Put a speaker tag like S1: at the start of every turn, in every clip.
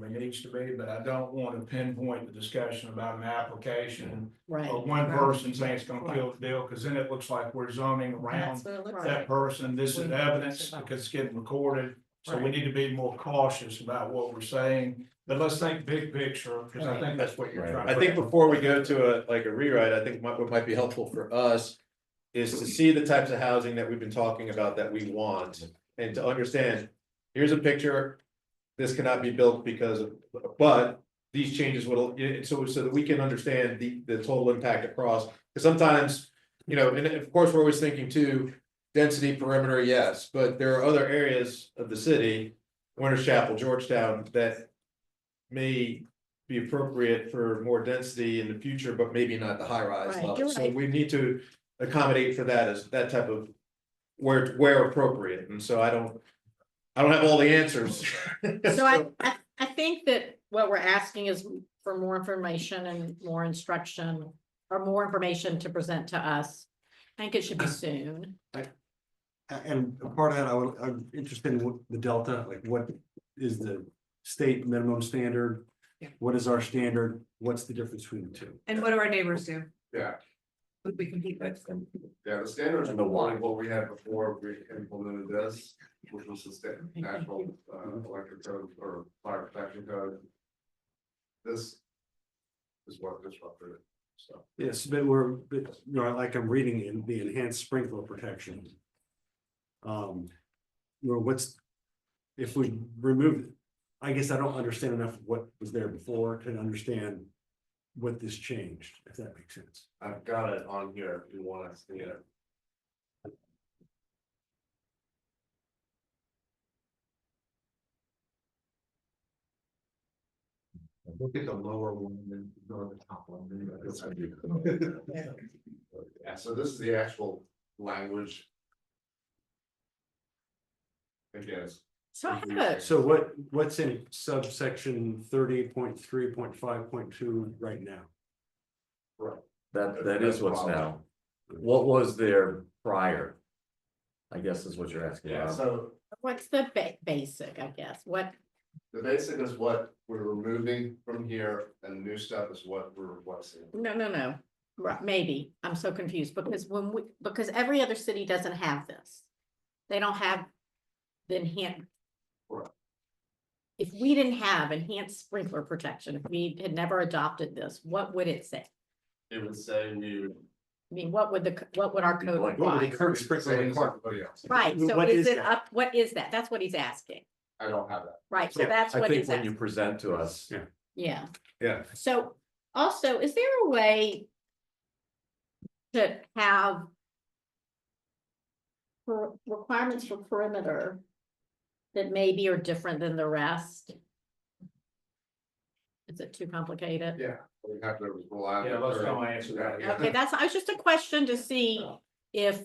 S1: when it needs to be, but I don't want to pinpoint the discussion about an application.
S2: Right.
S1: Of one person saying it's gonna kill the deal, because then it looks like we're zoning around
S2: That's what it looks
S1: that
S2: like.
S1: person, this is evidence, because it's getting recorded. So we
S2: Right.
S1: need to be more cautious about what we're saying, but let's think big picture, because I think that's what you're trying.
S3: I think before we go to a, like a rewrite, I think what what might be helpful for us. Is to see the types of housing that we've been talking about that we want and to understand, here's a picture. This cannot be built because of, but these changes will, yeah, so so that we can understand the the total impact across. Because sometimes, you know, and of course, we're always thinking too, density perimeter, yes, but there are other areas of the city. Winter Chapel, Georgetown, that may be appropriate for more density in the future, but maybe not the high rise
S2: Right, you're
S3: level. So
S2: right.
S3: we need to accommodate for that as that type of where where appropriate. And so I don't, I don't have all the answers.
S2: So I, I, I think that what we're asking is for more information and more instruction or more information to present to us. I think it should be soon.
S4: A- And a part of that, I would, I'm interested in what the delta, like what is the state minimum standard?
S5: Yeah.
S4: What is our standard? What's the difference between the two?
S5: And what do our neighbors do?
S6: Yeah.
S5: We- We compete with them.
S6: Yeah, the standards
S3: And the
S6: were
S3: why.
S6: what we had before we implemented this, which was the state national uh electric code or fire protection code. This is what disrupted it, so.
S4: Yes, but we're, but, you know, like I'm reading in the enhanced sprinkler protection. Um, you know, what's, if we remove, it, I guess I don't understand enough of what was there before to understand what this changed, if that makes sense.
S6: I've got it on here if you want to see it. Look at the lower one and go to the top one. Yeah, so this is the actual language. I guess.
S2: So I have a,
S4: So what, what's in subsection thirty point three point five point two right now?
S7: That, that is what's now. What was there prior? I guess is what you're asking. Rob.
S6: So
S2: what's the ba- basic, I guess? What,
S6: the basic is what we're removing from here and the new stuff is what we're replacing.
S2: no, no, no. Right, maybe. I'm so confused because when we, because every other city doesn't have this. They don't have the enhanced.
S6: Right.
S2: If we didn't have enhanced sprinkler protection, if we had never adopted this, what would it say?
S6: It would say we would.
S2: I mean, what would the, c- what would our code
S4: What would the
S2: apply?
S4: current
S6: Same
S4: sprinkler
S6: as
S4: require?
S6: everybody else.
S2: Right, so
S4: what
S2: is
S4: is
S2: it
S4: that?
S2: up, what is that? That's what he's asking,
S6: I don't have that.
S2: right? So
S4: Yeah,
S2: that's
S7: I
S2: what
S7: think
S2: he's
S7: when you
S2: asking,
S7: present to us,
S4: Yeah.
S2: yeah.
S3: Yeah.
S2: So also, is there a way to have per- requirements for perimeter that maybe are different than the rest? Is it too complicated?
S6: Yeah. We have to rely. on
S1: Yeah, let's
S6: the-
S1: go answer that.
S6: Yeah.
S2: Okay, that's, I was just a question to see if,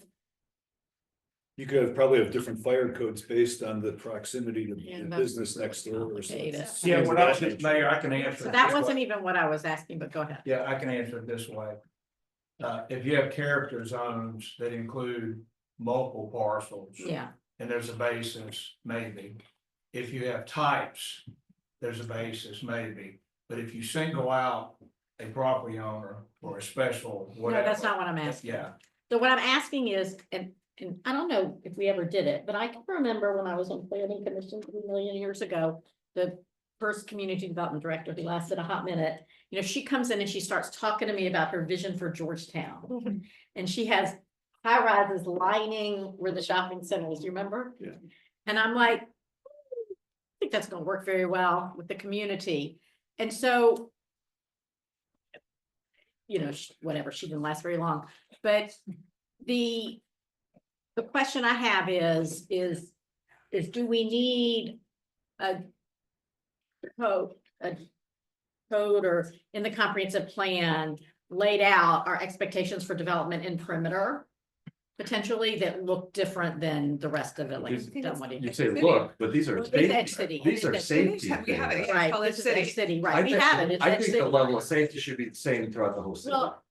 S8: You could have probably have different fire codes based on the proximity to
S2: Yeah,
S8: the
S2: that's
S8: business next door or something.
S2: complicated.
S1: Yeah, when I was just mayor, I can answer.
S2: so
S1: it
S2: that
S1: this way.
S2: wasn't even what I was asking, but go ahead.
S1: Yeah, I can answer it this way. Uh, if you have character zones that include multiple parcels.
S2: Yeah,
S1: And there's a basis, maybe. If you have types, there's a basis, maybe. But if you single out a property owner or a special,
S2: no,
S1: whatever.
S2: that's not what I'm asking.
S1: Yeah,
S2: So what I'm asking is, and, and I don't know if we ever did it, but I can remember when I was on planning commission a million years ago. The first community development director who lasted a hot minute, you know, she comes in and she starts talking to me about her vision for Georgetown. And she has high rises lining where the shopping center is, you remember?
S4: Yeah.
S2: And I'm like, "Hmm, I think that's gonna work very well with the community. And so. You know, sh- whatever, she didn't last very long, but the, the question I have is, is, is do we need a code, a code or in the comprehensive plan laid out our expectations for development in perimeter? Potentially that look different than the rest of it, like.
S7: Because
S2: done what it-
S7: you say, look, but these are,
S2: It's Edge City.
S7: safety- these are
S2: It's
S7: safety
S5: We have
S7: things.
S5: it.
S2: Right,
S5: Call it
S2: this is Edge
S5: city.
S2: City,
S7: I
S2: right, we
S7: think-
S2: have it, it's
S7: I
S2: Edge
S7: think the
S2: City.
S7: level of safety should be the same throughout the whole city.
S2: Well,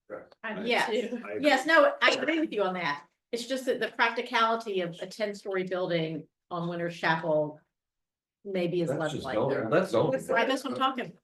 S2: yes,
S4: I agree.
S2: yes, no, I agree with you on that. It's just that the practicality of a ten-story building on Winter Chapel maybe is
S7: That's
S2: less
S7: just
S2: likely.
S7: zoning, that's zoning.
S2: Right, that's what I'm talking